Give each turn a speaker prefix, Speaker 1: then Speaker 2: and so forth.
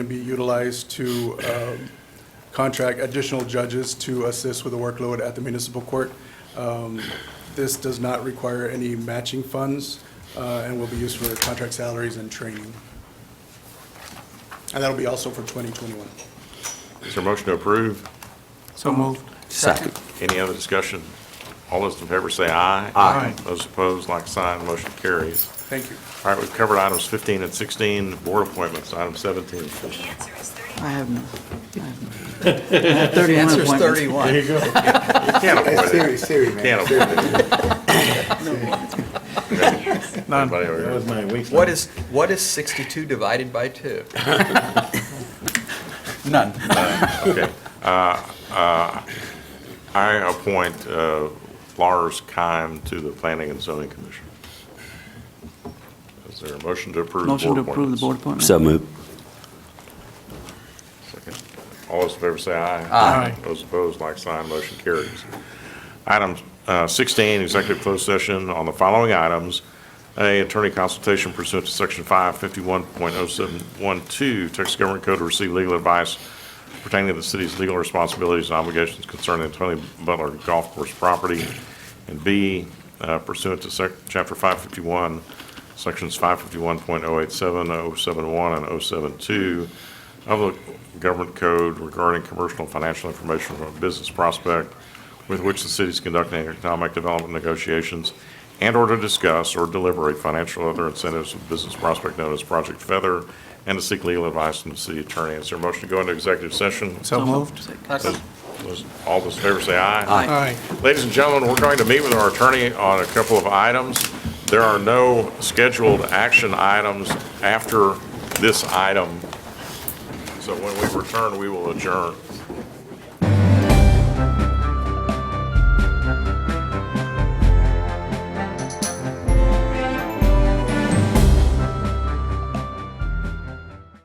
Speaker 1: to be utilized to um, contract additional judges to assist with the workload at the municipal court. Um, This does not require any matching funds uh, and will be used for contract salaries and training. And that'll be also for 2021.
Speaker 2: Is there a motion to approve?
Speaker 3: So moved.
Speaker 4: Second.
Speaker 2: Any other discussion? All those in favor say aye.
Speaker 4: Aye.
Speaker 2: Those opposed, like sign, motion carries.
Speaker 1: Thank you.
Speaker 2: All right, we've covered items 15 and 16, board appointments, item 17.
Speaker 5: The answer is 30.
Speaker 3: I have no. I have no. I have 31 appointments.
Speaker 6: thirty-one.
Speaker 2: you go. You can't avoid it.
Speaker 6: Siri, Siri, man.
Speaker 2: Can't avoid it.
Speaker 3: None.
Speaker 2: Anybody over here?
Speaker 7: my weakness.
Speaker 6: What is, what is sixty-two divided by two?
Speaker 4: None.
Speaker 2: Okay. Uh, uh, I appoint uh, Lars Keim to the Planning and Zoning Commission. Is there a motion to approve?
Speaker 3: Motion
Speaker 2: board
Speaker 3: to approve the
Speaker 2: appointments?
Speaker 3: board appointment.
Speaker 4: So moved.
Speaker 2: Second. All those in favor say aye.
Speaker 3: Aye.
Speaker 2: Those opposed, like sign, motion carries. Item uh, 16, executive closed session on the following items. A, attorney consultation pursuant to Section 551.0712 Texas Government Code to receive legal advice pertaining to the city's legal responsibilities and obligations concerning the Tony Butler Golf Course property. And B, uh, pursuant to sec- Chapter 551, Sections 551.087, 071, and 072 of the government code regarding commercial and financial information from a business prospect with which the city is conducting economic development negotiations and/or to discuss or deliberate financial or other incentives of business prospect known as Project Feather, and to seek legal advice from the city attorney. Is there a motion to go into executive session?
Speaker 3: So moved.
Speaker 2: Those- All those in favor say aye.
Speaker 4: Aye.
Speaker 2: Ladies and gentlemen, we're going to meet with our attorney on a couple of items. There are no scheduled action items after this item. So when we return, we will adjourn.